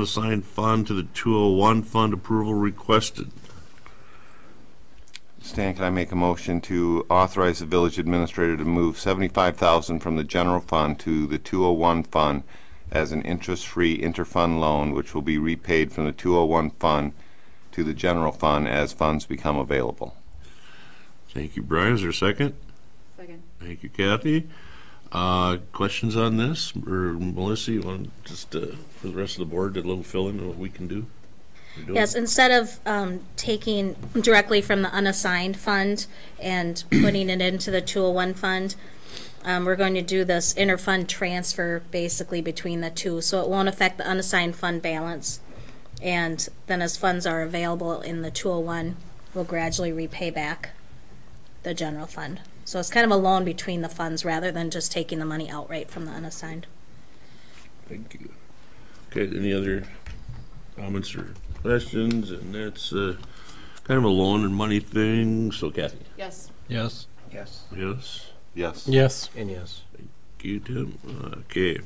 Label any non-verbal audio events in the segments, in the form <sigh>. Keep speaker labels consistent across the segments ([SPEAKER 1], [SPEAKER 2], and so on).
[SPEAKER 1] unassigned fund to the 201 fund approval requested.
[SPEAKER 2] Stan, can I make a motion to authorize the village administrator to move seventy-five thousand from the general fund to the two oh one fund as an interest-free interfund loan, which will be repaid from the two oh one fund to the general fund as funds become available.
[SPEAKER 1] Thank you, Brian. Is there a second?
[SPEAKER 3] Second.
[SPEAKER 1] Thank you, Kathy. Uh, Questions on this? Or Melissa, you want just, uh, for the rest of the board, a little fill-in of what we can do? We're doing-
[SPEAKER 4] Yes, instead of um, taking directly from the unassigned fund and <clears throat> putting it into the 201 fund, um, we're going to do this interfund transfer basically between the two, so it won't affect the unassigned fund balance. And then as funds are available in the 201, we'll gradually repay back the general fund. So it's kind of a loan between the funds rather than just taking the money outright from the unassigned.
[SPEAKER 1] Thank you. Okay, any other comments or questions? And that's uh, kind of a loan and money thing, so Kathy?
[SPEAKER 3] Yes.
[SPEAKER 5] Yes.
[SPEAKER 6] Yes.
[SPEAKER 1] Yes?
[SPEAKER 2] Yes.
[SPEAKER 5] Yes.
[SPEAKER 6] And yes.
[SPEAKER 1] You Tim. Okay.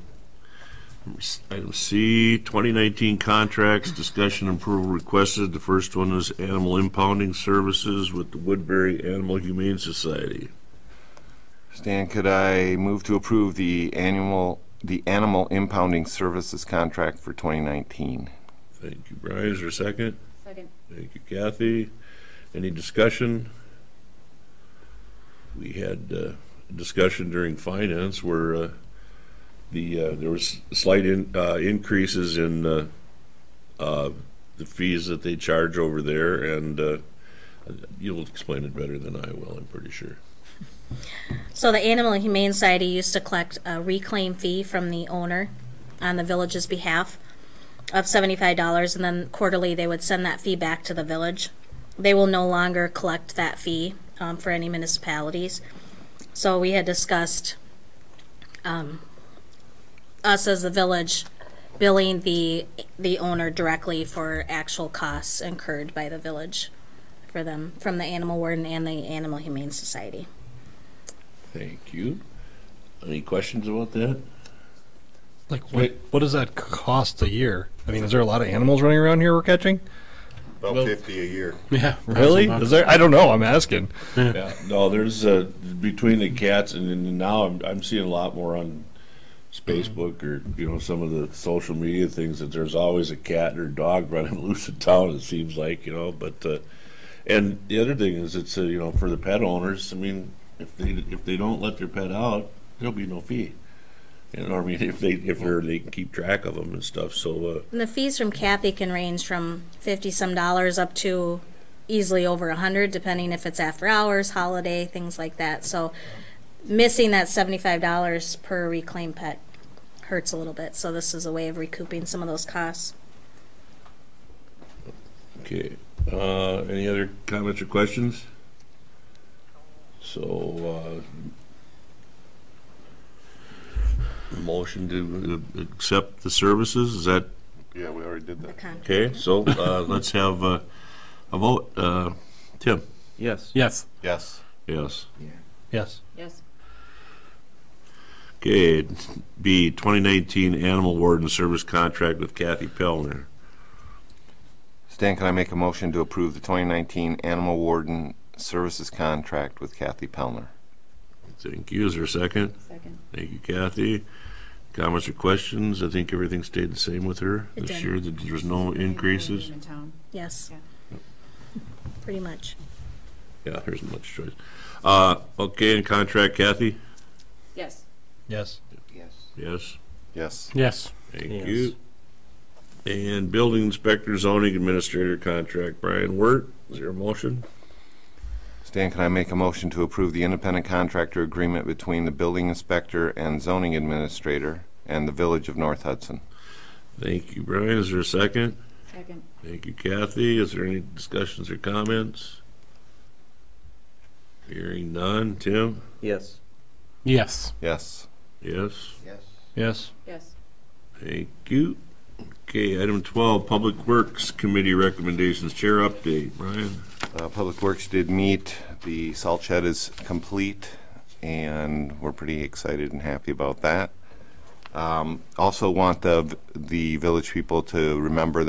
[SPEAKER 1] Item C, 2019 contracts, discussion and approval requested. The first one is animal impounding services with the Woodbury Animal Humane Society.
[SPEAKER 2] Stan, could I move to approve the annual, the animal impounding services contract for twenty nineteen?
[SPEAKER 1] Thank you, Brian. Is there a second?
[SPEAKER 3] Second.
[SPEAKER 1] Thank you, Kathy. Any discussion? We had uh, discussion during finance where uh, the, uh, there was slight in- uh, increases in uh, uh, the fees that they charge over there, and uh, you'll explain it better than I will, I'm pretty sure.
[SPEAKER 4] So the Animal and Humane Society used to collect a reclaim fee from the owner on the village's behalf of seventy-five dollars, and then quarterly they would send that fee back to the village. They will no longer collect that fee um, for any municipalities. So we had discussed um, us as the village billing the the owner directly for actual costs incurred by the village for them from the animal warden and the Animal Humane Society.
[SPEAKER 1] Thank you. Any questions about that?
[SPEAKER 5] Like what? What does that cost a year? I mean, is there a lot of animals running around here we're catching?
[SPEAKER 2] About fifty a year.
[SPEAKER 5] Yeah, really? Is there? I don't know. I'm asking.
[SPEAKER 1] Yeah, no, there's, uh, between the cats and then now I'm, I'm seeing a lot more on Facebook or, you know, some of the social media things that there's always a cat or dog <laughs> running loose in town, it seems like, you know, but, uh, and the other thing is it's, uh, you know, for the pet owners, I mean, if they, if they don't let their pet out, there'll be no fee. You know, I mean, <laughs> if they, if they're, they can keep track of them and stuff, so, uh,
[SPEAKER 4] And the fees from Kathy can range from fifty some dollars up to easily over a hundred, depending if it's after hours, holiday, things like that. So missing that seventy-five dollars per reclaimed pet hurts a little bit. So this is a way of recouping some of those costs.
[SPEAKER 1] Okay, uh, any other comments or questions? So, uh, motion to uh, accept the services, is that
[SPEAKER 2] Yeah, we already did
[SPEAKER 4] The con-
[SPEAKER 1] okay? So, uh, let's have uh, a vote. Uh, Tim?
[SPEAKER 6] Yes.
[SPEAKER 5] Yes.
[SPEAKER 2] Yes.
[SPEAKER 1] Yes.
[SPEAKER 5] Yes.
[SPEAKER 3] Yes.
[SPEAKER 1] Okay, B, 2019 Animal Warden Service Contract with Kathy Pellner.
[SPEAKER 2] Stan, can I make a motion to approve the 2019 Animal Warden Services Contract with Kathy Pellner?
[SPEAKER 1] Thank you, is there a second?
[SPEAKER 3] Second.
[SPEAKER 1] Thank you, Kathy. Comments or questions? I think everything stayed the same with her
[SPEAKER 4] It
[SPEAKER 1] this
[SPEAKER 4] did.
[SPEAKER 1] year, that there was no increases?
[SPEAKER 3] In town.
[SPEAKER 4] Yes.
[SPEAKER 3] Yeah.
[SPEAKER 4] Pretty much.
[SPEAKER 1] Yeah, there isn't much choice. Uh, okay, and contract Kathy?
[SPEAKER 3] Yes.
[SPEAKER 5] Yes.
[SPEAKER 6] Yes.
[SPEAKER 1] Yes,
[SPEAKER 2] Yes.
[SPEAKER 5] Yes.
[SPEAKER 1] thank
[SPEAKER 6] Yes.
[SPEAKER 1] you. And building inspector zoning administrator contract, Brian Wirt, is there a motion?
[SPEAKER 2] Stan, can I make a motion to approve the independent contractor agreement between the building inspector and zoning administrator and the Village of North Hudson?
[SPEAKER 1] Thank you, Brian, is there a second?
[SPEAKER 3] Second.
[SPEAKER 1] Thank you, Kathy, is there any discussions or comments? Hearing none, Tim?
[SPEAKER 6] Yes.
[SPEAKER 5] Yes.
[SPEAKER 2] Yes.
[SPEAKER 1] Yes,
[SPEAKER 6] Yes.
[SPEAKER 5] Yes.
[SPEAKER 3] Yes.
[SPEAKER 1] thank you. Okay, item twelve, Public Works Committee recommendations, chair update, Brian?
[SPEAKER 2] Uh, Public Works did meet, the salt shed is complete, and we're pretty excited and happy about that. Um, Also want the, the village people to remember